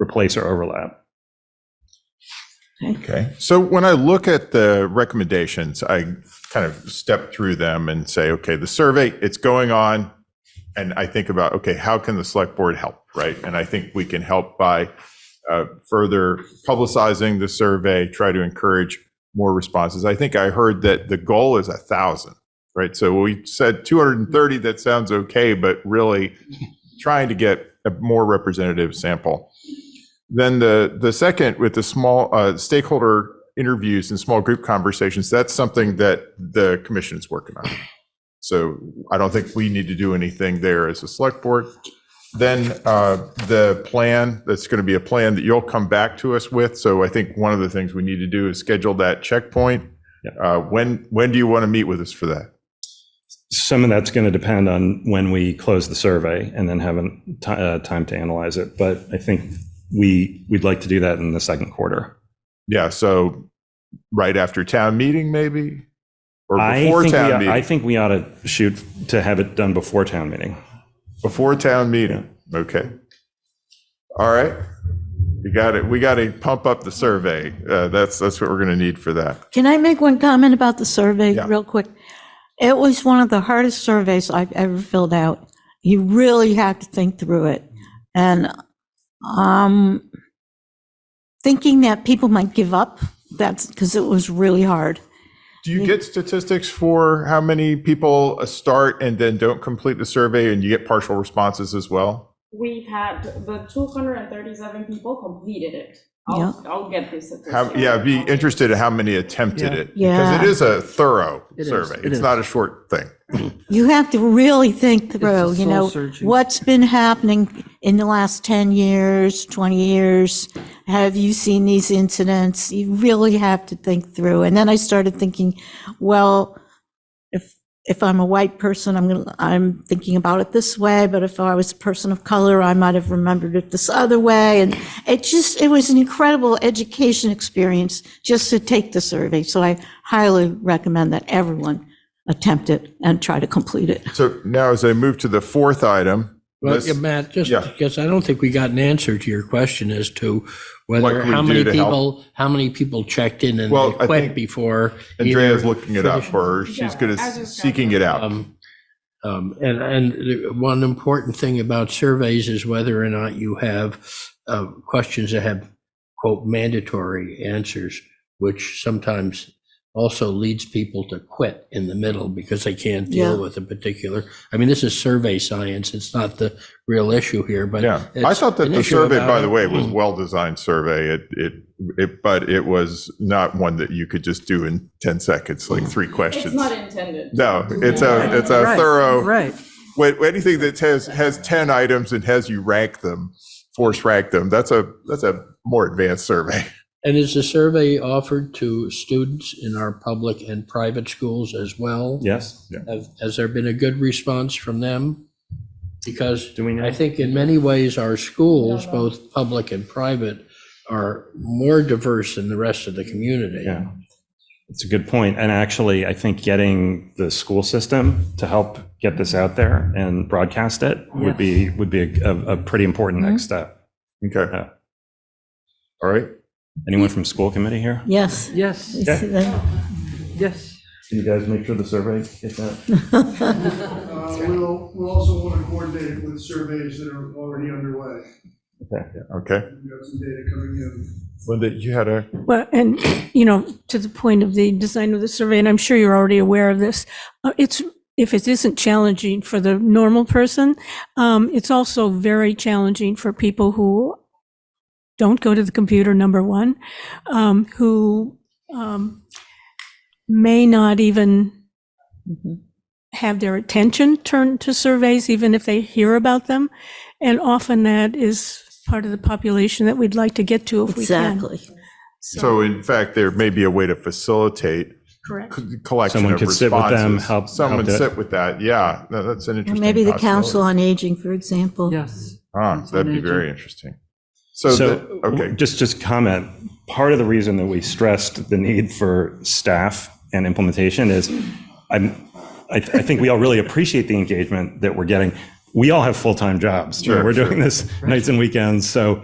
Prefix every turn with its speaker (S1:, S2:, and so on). S1: replace or overlap.
S2: Okay, so when I look at the recommendations, I kind of step through them and say, okay, the survey, it's going on. And I think about, okay, how can the select board help, right? And I think we can help by uh, further publicizing the survey, try to encourage more responses. I think I heard that the goal is a thousand, right? So we said 230, that sounds okay, but really trying to get a more representative sample. Then the, the second with the small uh, stakeholder interviews and small group conversations, that's something that the commission is working on. So I don't think we need to do anything there as a select board. Then uh, the plan, that's going to be a plan that you'll come back to us with. So I think one of the things we need to do is schedule that checkpoint.
S1: Yep.
S2: Uh, When, when do you want to meet with us for that?
S1: Some of that's going to depend on when we close the survey and then have a ti- uh, time to analyze it. But I think we, we'd like to do that in the second quarter.
S2: Yeah, so right after town meeting, maybe? Or
S1: I
S2: before
S1: think we
S2: town
S1: ought- I
S2: meeting?
S1: think we ought to shoot to have it done before town meeting.
S2: Before town meeting, okay. All right, you got it. We got to pump up the survey. Uh, That's, that's what we're going to need for that.
S3: Can I make one comment about the survey
S2: Yeah.
S3: real quick? It was one of the hardest surveys I've ever filled out. You really have to think through it. And um, thinking that people might give up, that's because it was really hard.
S2: Do you get statistics for how many people uh, start and then don't complete the survey and you get partial responses as well?
S4: We've had the two hundred and thirty-seven people completed it.
S3: Yeah.
S4: I'll, I'll get this.
S2: How, yeah, I'd be interested in how many attempted
S5: Yeah.
S2: it. Because
S3: Yeah.
S2: it is a thorough
S5: It is,
S2: survey.
S5: it
S2: It's
S5: is.
S2: not a short thing.
S3: You have to really think through, you know,
S5: soul-searching.
S3: what's been happening in the last 10 years, 20 years? Have you seen these incidents? You really have to think through. And then I started thinking, well, if, if I'm a white person, I'm going to, I'm thinking about it this way, but if I was a person of color, I might have remembered it this other way. And it just, it was an incredible education experience just to take the survey. So I highly recommend that everyone attempt it and try to complete it.
S2: So now as I move to the fourth item,
S6: Well,
S2: this-
S6: yeah, Matt, just
S2: yeah.
S6: because I don't think we got an answer to your question as to
S2: What
S6: whether,
S2: can we
S6: how
S2: do
S6: many
S2: to help?
S6: people, how many people checked in and
S2: Well,
S6: they
S2: I
S6: quit
S2: think
S6: before.
S2: Andrea's
S6: either
S2: looking it up
S6: finished-
S2: or she's
S4: Yeah,
S2: good
S4: as
S2: at
S4: is
S2: seeking it out.
S6: Um, um, And, and the- one important thing about surveys is whether or not you have uh, questions that have quote mandatory answers, which sometimes also leads people to quit in the middle because they can't deal
S3: Yeah.
S6: with a particular, I mean, this is survey science. It's not the real issue here, but.
S2: Yeah, I
S6: it's
S2: thought that
S6: an
S2: the
S6: issue
S2: survey,
S6: about
S2: by
S6: it. Mm.
S2: the way, was well-designed survey. It, it, it, but it was not one that you could just do in 10 seconds,
S6: Mm.
S2: like three
S4: It's
S2: questions.
S4: not intended.
S2: No, it's a, it's a
S5: Right,
S2: thorough,
S5: Right.
S2: wait, anything that has, has 10 items and has you rank them, force rank them, that's a, that's a more advanced survey.
S6: And is the survey offered to students in our public and private schools as well?
S1: Yes?
S6: Have- Has there been a good response from them? Because
S1: Do we know?
S6: I think in many ways, our schools, both public and private, are more diverse than the rest of the community.
S1: Yeah. It's a good point. And actually, I think getting the school system to help get this out there and broadcast it would be, would be a, a pretty important next
S6: Mm-hmm.
S1: step.
S2: Okay.
S1: Yeah.
S2: All right.
S1: Anyone from school committee here?
S3: Yes.
S5: Yes, yes.
S1: Can you guys make sure the survey gets out?
S7: Uh, We'll, we'll also want to coordinate with surveys that are already underway.
S2: Okay.
S7: We've got some data coming in.
S2: Linda, you had a,
S8: Well, and, you know, to the point of the design of the survey, and I'm sure you're already aware of this, uh, it's, if it isn't challenging for the normal person, um, it's also very challenging for people who don't go to the computer, number one, um, who um, may not even have their attention turned to surveys, even if they hear about them. And often that is part of the population that we'd like to get to if we can.
S3: Exactly.
S2: so in fact, there may be a way to facilitate
S8: Correct.
S2: c- collection
S1: Someone
S2: of
S1: could sit with them,
S2: responses.
S1: help- help
S2: Someone
S1: do it.
S2: sit with that. Yeah, no, that's an
S3: Or
S2: interesting.
S3: maybe the
S2: possibility.
S3: Council on Aging, for example.
S5: Yes.
S2: Ah,
S5: Council
S2: that'd
S5: on
S2: be
S5: Aging.
S2: very interesting. So,
S1: So,
S2: the- okay,
S1: just, just comment, part of the reason that we stressed the need for staff and implementation is, I'm, I, I think we all really appreciate the engagement that we're getting. We all have full-time jobs. you know,
S2: Sure,
S1: We're
S2: sure.
S1: doing this nights and weekends, so